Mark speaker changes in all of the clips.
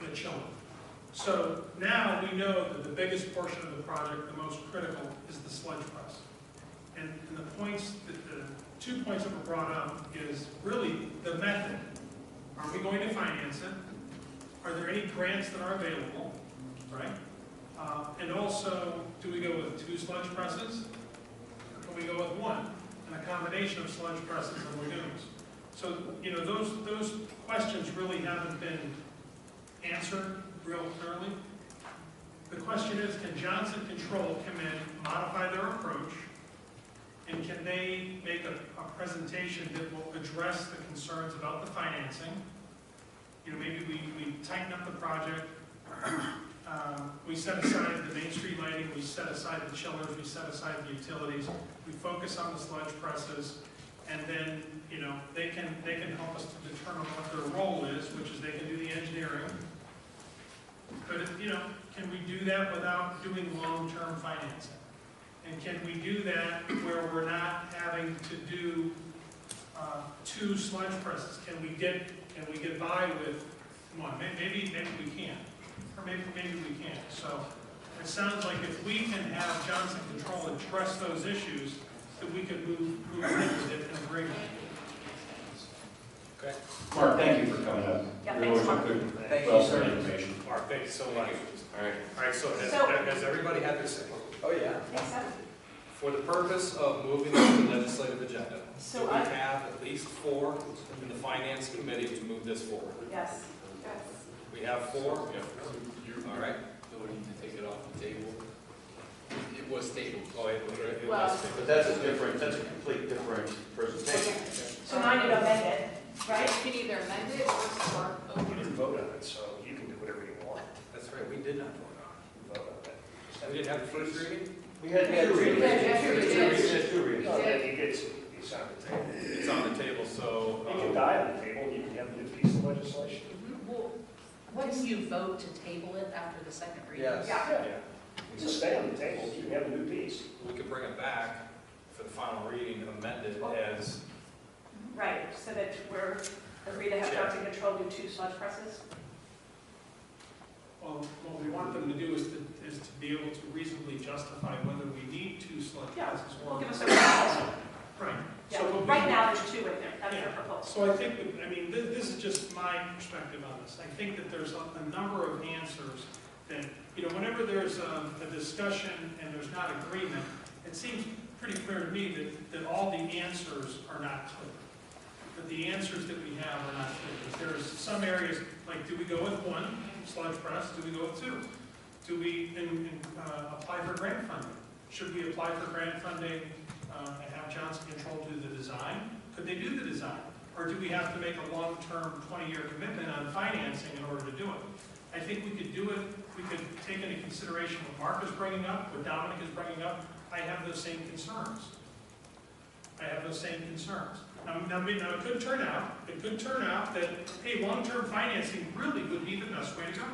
Speaker 1: the children. So now we know that the biggest portion of the project, the most critical, is the sludge press. And, and the points, that the two points that were brought up is really the method. Are we going to finance it? Are there any grants that are available, right? Uh, and also, do we go with two sludge presses? Or can we go with one, and a combination of sludge presses and lagoons? So, you know, those, those questions really haven't been answered real clearly. The question is, can Johnson Control come in, modify their approach, and can they make a, a presentation that will address the concerns about the financing? You know, maybe we, we tighten up the project, uh, we set aside the Main Street lighting, we set aside the chillers, we set aside the utilities, we focus on the sludge presses, and then, you know, they can, they can help us to determine what their role is, which is they can do the engineering. But, you know, can we do that without doing long-term financing? And can we do that where we're not having to do uh, two sludge presses? Can we get, can we get by with one? May- Maybe, maybe we can, or maybe, maybe we can't. So it sounds like if we can have Johnson Control address those issues, that we could move, move ahead with it and bring it.
Speaker 2: Mark, thank you for coming up.
Speaker 3: Yeah,
Speaker 2: You're
Speaker 3: thanks,
Speaker 2: always
Speaker 3: Mark.
Speaker 2: a good,
Speaker 4: Thank you,
Speaker 2: wealth of
Speaker 4: sir.
Speaker 2: information.
Speaker 5: Mark, thank you so much.
Speaker 2: All right.
Speaker 5: All right, so has,
Speaker 3: So-
Speaker 5: has everybody had their say?
Speaker 4: Oh, yeah.
Speaker 3: Next up.
Speaker 5: For the purpose of moving on the legislative agenda, do
Speaker 3: So
Speaker 5: we
Speaker 3: I-
Speaker 5: have at least four in the finance committee to move this forward?
Speaker 3: Yes.
Speaker 5: We have four? All right. take it off the table. It was tabled. Oh, it was, it
Speaker 3: Well-
Speaker 5: was
Speaker 2: But
Speaker 5: tabled.
Speaker 2: that's a different, that's a complete different presentation.
Speaker 3: So now you amend it, right?
Speaker 6: You can either amend it or start
Speaker 7: You
Speaker 6: over.
Speaker 7: didn't vote on it, so you can do whatever you want.
Speaker 5: That's right, we did not vote
Speaker 7: You vote on
Speaker 5: on it.
Speaker 7: it.
Speaker 5: We didn't have the first reading?
Speaker 2: We had two readings.
Speaker 6: We had two readings.
Speaker 2: We had two
Speaker 6: We
Speaker 2: readings.
Speaker 7: No,
Speaker 6: did.
Speaker 7: if you get, some- it's on the table.
Speaker 5: It's on the table, so. um,
Speaker 7: You can die on the table, you can have a new piece of legislation.
Speaker 6: Well, Wouldn't you vote to table it after the second reading?
Speaker 4: Yes.
Speaker 3: Yeah.
Speaker 5: Yeah,
Speaker 7: Just stay on the table, you can have a new piece.
Speaker 5: we could bring it back for the final reading amended as,
Speaker 3: Right, so that we're, agree to have Johnson Control do two sludge presses?
Speaker 1: Well, what we want them to do is to, is to be able to reasonably justify whether we need two sludge
Speaker 3: Yeah,
Speaker 1: presses or.
Speaker 3: Give us a proposal.
Speaker 1: Right.
Speaker 3: Yeah,
Speaker 1: So what we-
Speaker 3: right now, there's two in there, that's their
Speaker 1: Yeah.
Speaker 3: proposal.
Speaker 1: So I think, that- I mean, thi- this is just my perspective on this. I think that there's a a number of answers that, you know, whenever there's um, a discussion and there's not agreement, it seems pretty clear to me that, that all the answers are not clear. That the answers that we have are not clear. That There's some areas, like, do we go with one sludge press? Do we go with two? Do we, and, and, uh, apply for grant funding? Should we apply for grant funding, uh, and have Johnson Control do the design? Could they do the design? Or do we have to make a long-term, 20-year commitment on financing in order to do it? I think we could do it, we could take into consideration what Mark is bringing up, what Dominic is bringing up. I have those same concerns. I have those same concerns. Now, now, may- now, it could turn out, it could turn out that, hey, long-term financing really would be the best way to go.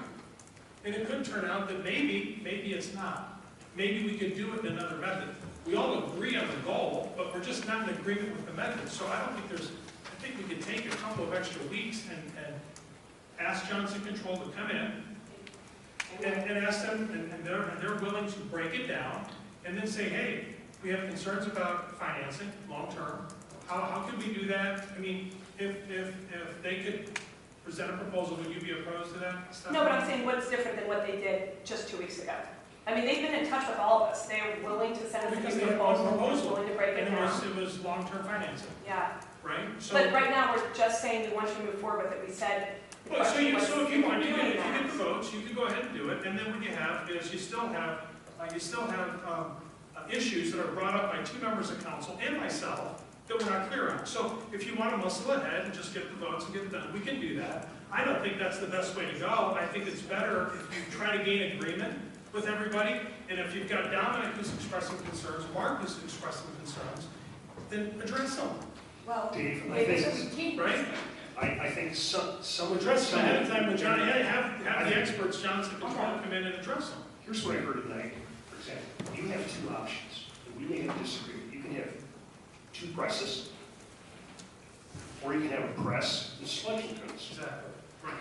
Speaker 1: And it could turn out that maybe, maybe it's not. Maybe we could do it in another method. We all agree on the goal, but we're just not in agreement with the method. So I don't think there's, I think we could take a couple of extra weeks and, and ask Johnson Control to come in and, and ask them, and and they're, and they're willing to break it down and then say, hey, we have concerns about financing, long-term. How, how could we do that? I mean, if, if, if they could present a proposal, would you be opposed to that?
Speaker 3: No, but I'm saying what's different than what they did just two weeks ago? I mean, they've been in touch with all of us. They were willing to send us
Speaker 1: Because
Speaker 3: a
Speaker 1: they
Speaker 3: new
Speaker 1: had one
Speaker 3: proposal, they
Speaker 1: proposal,
Speaker 3: were willing to break it
Speaker 1: And it was,
Speaker 3: down.
Speaker 1: it was long-term financing,
Speaker 3: Yeah,
Speaker 1: right? So.
Speaker 3: but right now, we're just saying we want you to move forward with it. We said. the
Speaker 1: Well, so
Speaker 3: question
Speaker 1: you,
Speaker 3: was,
Speaker 1: so if you want,
Speaker 3: we're
Speaker 1: you can,
Speaker 3: doing
Speaker 1: if you
Speaker 3: that.
Speaker 1: get the votes, you can go ahead and do it, and then what you have is you still have, uh, you still have, um, uh, issues that are brought up by two members of council and myself that we're not clear on. So if you want to muscle ahead and just get the votes and get it done, we can do that. I don't think that's the best way to go. I think it's better if you try to gain agreement with everybody, and if you've got Dominic who's expressing concerns, Mark who's expressing concerns, then address them,
Speaker 6: Well,
Speaker 7: Dave, I
Speaker 6: maybe we
Speaker 7: think,
Speaker 6: can't.
Speaker 1: right?
Speaker 7: I, I think some, some
Speaker 1: Address
Speaker 7: address.
Speaker 1: them ahead of time with Johnny, hey, have, have the experts, Johnson Control, come in and address them.
Speaker 7: Here's what I heard tonight, for example, you have two options, and we may have disagreed, you can have two presses, or you can have a press and sludge comes.
Speaker 1: Exactly. Right.